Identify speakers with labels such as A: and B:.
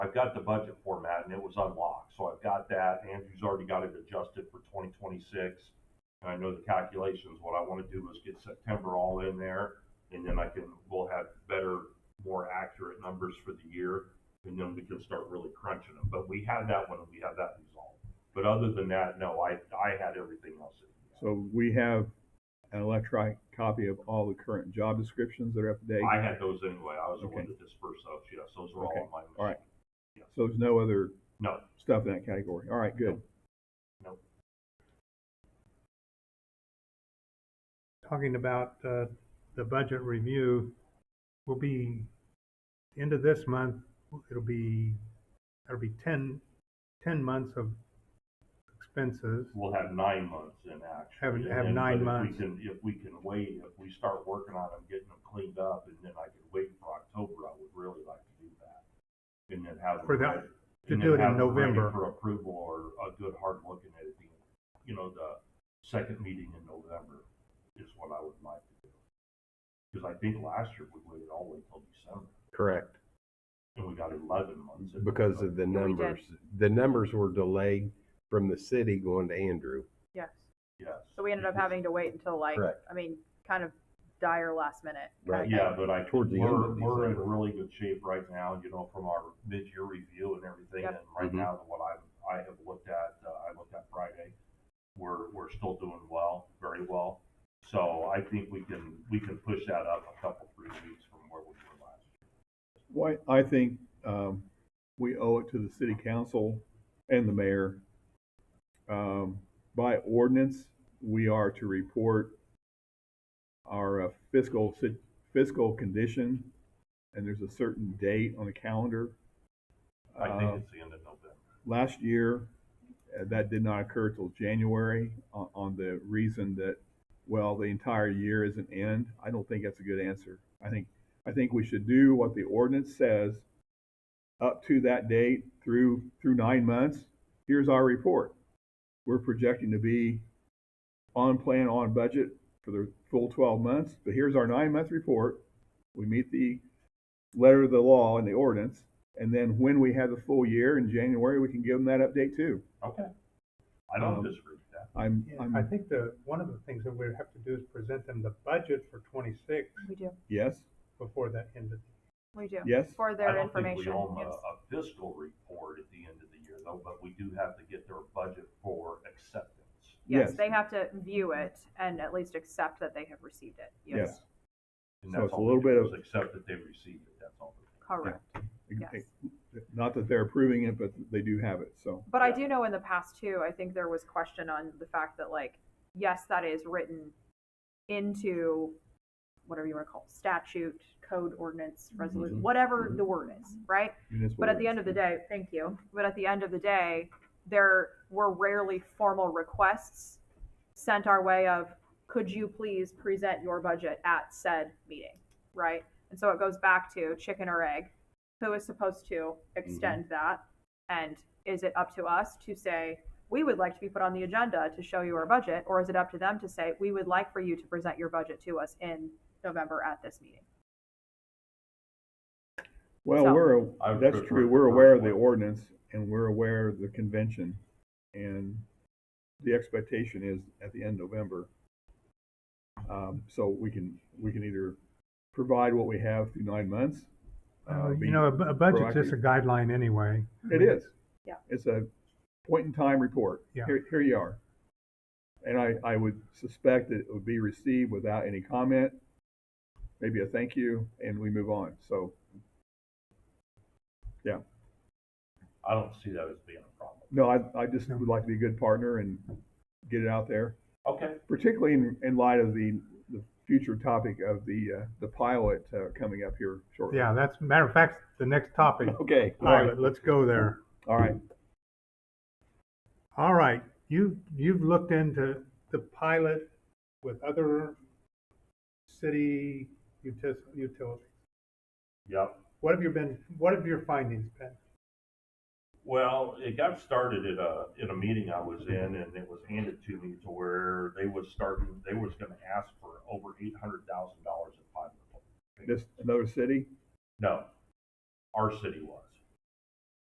A: I've got the budget format and it was unlocked, so I've got that. Andrew's already got it adjusted for twenty twenty-six. And I know the calculations. What I wanna do is get September all in there and then I can, we'll have better, more accurate numbers for the year. And then we can start really crunching them. But we had that one and we had that resolved. But other than that, no, I, I had everything else. in.
B: So we have an electronic copy of all the current job descriptions that are up to date.
A: I had those anyway. I was the one
B: Okay.
A: to disperse those. Yes, those were all
B: Okay.
A: in my.
B: All right. So there's no other
A: No,
B: stuff in that category. All right, good.
C: talking about uh, the budget review will be end of this month. It'll be it'll be 10, 10 months of expenses.
A: We'll have nine months in action.
C: Have-
A: And
C: have
A: then-
C: nine
A: but if we
C: months.
A: can- If we can wait, if we start working on them, getting them cleaned up, and then I could wait for October, I would really like to do that. And then have. them
C: For that-
A: ready-
C: to
A: and
C: do
A: then
C: it in
A: have them ready
C: November.
A: For approval or a good hard look at it, at the, you know, the second meeting in November is what I would like to do. Because I think last year we waited all the way till December,
D: Correct,
A: and we got eleven months. in
D: because of the
A: November.
D: numbers. The numbers were delayed from the city going to Andrew.
E: Yes.
A: Yes.
E: So we ended up having to wait until like,
D: Correct.
E: I mean, kind of dire last minute.
D: Right.
E: kinda
A: Yeah, but I,
D: Towards the end
A: we're,
D: of
A: we're in
D: December.
A: really good shape right now, you know, from our mid-year review and everything,
E: Yep.
A: and right
D: Mhm.
A: now, what I, I have looked at, uh, I looked at Friday, we're, we're still doing well, very well, so I think we can, we can push that up a couple, three weeks from where we were last year.
B: Why, I think, um, we owe it to the city council and the mayor. Um, by ordinance, we are to report our uh, fiscal, si- fiscal condition, and there's a certain date on the calendar.
A: I think
D: Uh-huh.
B: Uh,
A: it's the end of November,
B: last year, uh, that did not occur till January on, on the reason that, well, the entire year is an end. I don't think that's a good answer. I think, I think we should do what the ordinance says up to that date through, through nine months. Here's our report. We're projecting to be on plan, on budget for the full twelve months, but here's our nine-month report. We meet the letter of the law and the ordinance. And then when we have the full year in January, we can give them that update too.
A: okay? I don't
D: Uh-huh.
B: Um,
A: disagree with that,
B: I'm,
C: I
B: I'm,
C: think the one of the things that we have to do is present them the budget for 26
E: We do,
B: yes,
C: before that end of
E: we do.
B: Yes.
E: For
A: I
E: their
A: don't think we
E: information.
A: owe them a,
E: yes.
A: a fiscal report at the end of the year, though, but we do have to get their budget for acceptance.
E: Yes,
B: yes.
E: they have to view it and at least accept that they have received it. Yes,
B: yes.
A: And
B: So
A: that's
B: it's a
A: all they
B: little
A: do
B: bit
A: is
B: of-
A: Accept that they received it, that's all. they do.
E: correct. Yes.
B: Not that they're approving it, but they do have it, so.
E: But I
A: Yeah.
E: do know in the past too, I think there was question on the fact that like, yes, that is written into whatever you want to call it, statute, code, ordinance, resolution,
D: Mhm.
E: whatever
D: Mhm.
E: the word is, right?
B: municipal
E: But at the
B: rates.
E: end of the day, thank you. But at the end of the day, there were rarely formal requests sent our way of, could you please present your budget at said meeting, right? And so it goes back to chicken or egg. Who is supposed to extend that? And is it up to us to say, we would like to be put on the agenda to show you our budget? Or is it up to them to say, we would like for you to present your budget to us in November at this meeting?
B: Well,
E: so-
B: we're,
A: I would
B: that's
A: prefer
B: true,
A: the
B: we're
A: first
B: aware of the
A: one.
B: ordinance and we're aware of the convention. And the expectation is at the end of November. Um, so we can, we can either provide what we have through nine months.
C: the
B: uh,
C: year.
B: be-
C: you know, a, bu- a budget's just a guideline anyway.
B: It is.
E: Yeah.
B: It's a point in time report.
C: Yeah.
B: Here, here you are. And I, I would suspect that it would be received without any comment, maybe a thank you, and we move on. So,
A: I don't see that as being a problem.
B: no, I, I just would like to be a good partner and get it out there,
A: Okay,
B: particularly in, in light of the, the future topic of the, uh, the pilot, uh, coming up here shortly.
C: Yeah, that's matter of fact the next topic.
B: Okay, all right,
C: Pilot, let's go there.
B: all right.
C: All right, you, you've looked into the pilot with other city utis- utilities.
A: yep.
C: What have you been, what have your findings been?
A: Well, it got started at a, at a meeting I was in and it was handed to me to where they was starting, they was gonna ask for over eight hundred thousand dollars in five.
B: Just another city?
A: No, our city was.